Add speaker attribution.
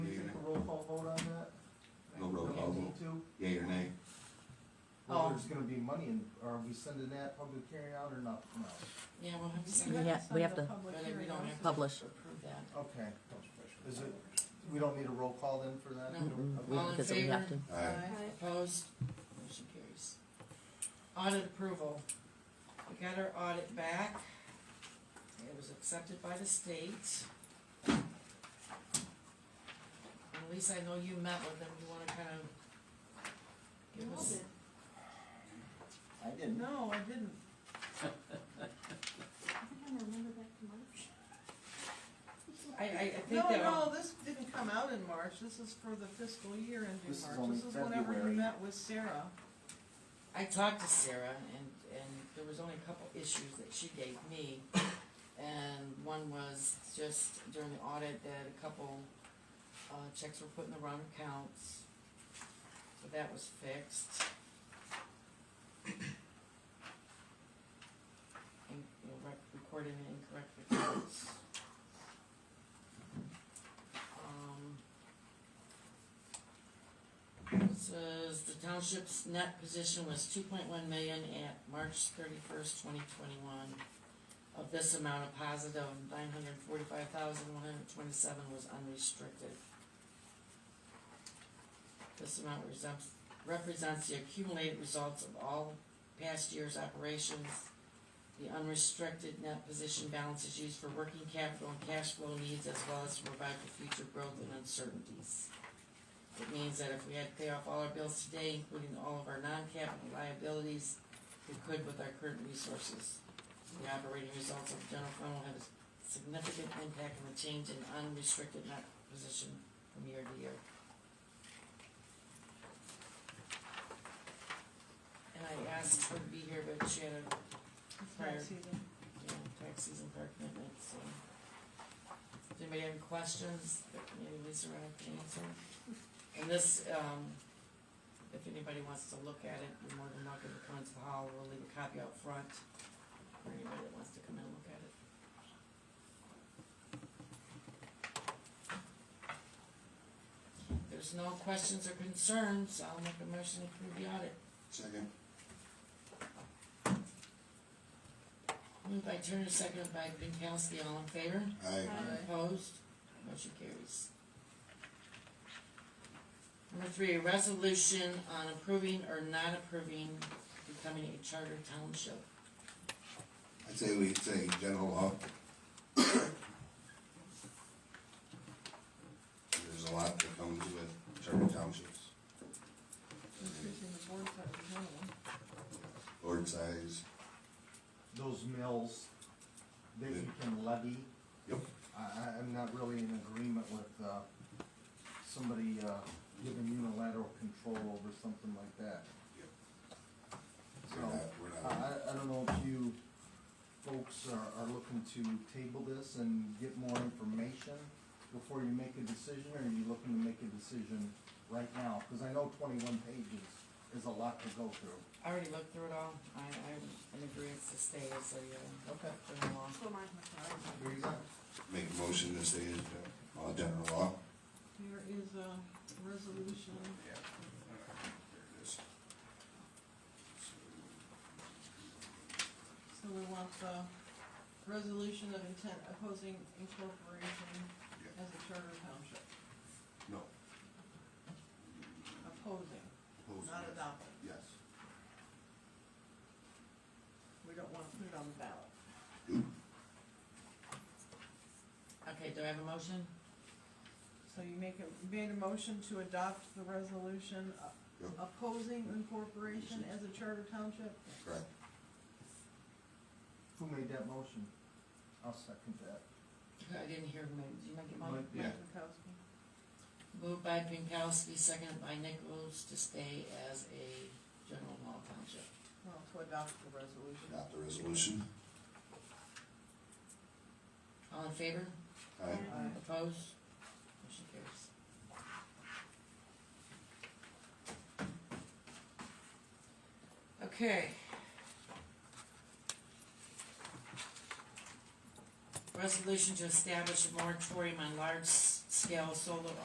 Speaker 1: be money, in are we sending that public hearing out or not? No,
Speaker 2: Yeah, we'll have to
Speaker 3: We
Speaker 2: send
Speaker 3: have
Speaker 2: it,
Speaker 3: to
Speaker 4: Yeah,
Speaker 3: send the
Speaker 4: to-
Speaker 3: public
Speaker 2: but we
Speaker 3: hearing
Speaker 2: don't have to.
Speaker 3: notice.
Speaker 4: Publish.
Speaker 2: Approve that.
Speaker 1: okay. Is it, we don't need a roll call then for that?
Speaker 2: No.
Speaker 4: Mm-mm, we-
Speaker 2: All in
Speaker 4: because we have
Speaker 2: favor?
Speaker 4: to.
Speaker 5: Aye.
Speaker 3: Aye.
Speaker 2: Opposed? Motion carries. Audit approval. We got our audit back. It was accepted by the state. And Lisa, I know you met with them. You wanna kind of give us?
Speaker 1: I didn't.
Speaker 3: No, I didn't.
Speaker 2: I, I, I
Speaker 3: No,
Speaker 2: think that.
Speaker 3: no, this didn't come out in March, this is for the fiscal year ending
Speaker 1: This is
Speaker 3: March,
Speaker 1: only
Speaker 3: this is whenever you
Speaker 1: February.
Speaker 3: met with Sarah.
Speaker 2: I talked to Sarah and, and there was only a couple issues that she gave me. And one was just during the audit that a couple, uh, checks were put in the wrong accounts. So that was fixed. And, you know, rec- recording the incorrect accounts. Um. Says the township's net position was two point one million at March thirty-first, twenty twenty-one. Of this amount, a positive nine hundred forty-five thousand, one hundred twenty-seven was unrestricted. This amount resembles, represents the accumulated results of all past year's operations. The unrestricted net position balance is used for working capital and cash flow needs as well as to provide for future growth and uncertainties. It means that if we had to pay off all our bills today, including all of our non-capital liabilities, we could with our current resources. The operating results of the general fund will have a significant impact on the change in unrestricted net position from year to year. And I asked her to be here, but she had a Prior.
Speaker 3: Tax season.
Speaker 2: yeah, taxes and park commitments, so. Does anybody have any questions that maybe Lisa or I can answer? And this, um, if anybody wants to look at it, you're more than welcome to come into the hall, we'll leave a copy out front for anybody that wants to come in and look at it. If there's no questions or concerns, I'll make a motion to approve the audit.
Speaker 5: Second.
Speaker 2: Moved by Turner, seconded by Pinkowski, all in favor?
Speaker 5: Aye.
Speaker 2: Opposed? Motion carries. Number three, a resolution on approving or not approving becoming a charter township.
Speaker 5: I'd say we say general law. There's a lot that comes with charter townships,
Speaker 3: Increasing the board size is one of them.
Speaker 5: board size,
Speaker 1: Those mills that you can levy.
Speaker 5: Yep.
Speaker 1: I, I, I'm not really in agreement with, uh, somebody, uh, giving unilateral control over something like that.
Speaker 5: we're not, we're
Speaker 1: I,
Speaker 5: not,
Speaker 1: Uh, I, I don't know if you folks are, are looking to table this and get more information before you make a decision, or are you looking to make a decision right now? Cause I know twenty-one pages is a lot to go through.
Speaker 2: I already looked through it all. I, I'm in agreement to stay as a,
Speaker 1: Okay.
Speaker 2: uh, general law.
Speaker 1: There you go.
Speaker 5: make a motion to say it's gen- all general law.
Speaker 3: There is a resolution, so we want the resolution of intent opposing incorporation
Speaker 5: Yeah.
Speaker 3: as a charter township,
Speaker 5: No.
Speaker 3: opposing,
Speaker 5: Opposed,
Speaker 3: not
Speaker 5: yes.
Speaker 3: adopting.
Speaker 5: Yes.
Speaker 3: We don't wanna put it on the ballot.
Speaker 2: Okay, do I have a motion?
Speaker 3: So you make a, you made a motion to adopt the resolution uh,
Speaker 5: Yep.
Speaker 3: opposing incorporation as a charter township?
Speaker 5: Correct.
Speaker 1: Who made that motion? I'll second that.
Speaker 2: I didn't hear, who made- did you make it, Mike?
Speaker 1: Mike.
Speaker 5: Yeah.
Speaker 3: Mike Wackowski.
Speaker 2: Moved by Pinkowski, seconded by Nichols to stay as a general law township.
Speaker 3: Well, to adopt the resolution.
Speaker 5: Adopt the resolution.
Speaker 2: All in favor?
Speaker 5: Aye.
Speaker 3: Aye.
Speaker 2: Opposed? Motion carries. Okay. Resolution to establish a moratorium on large-scale solar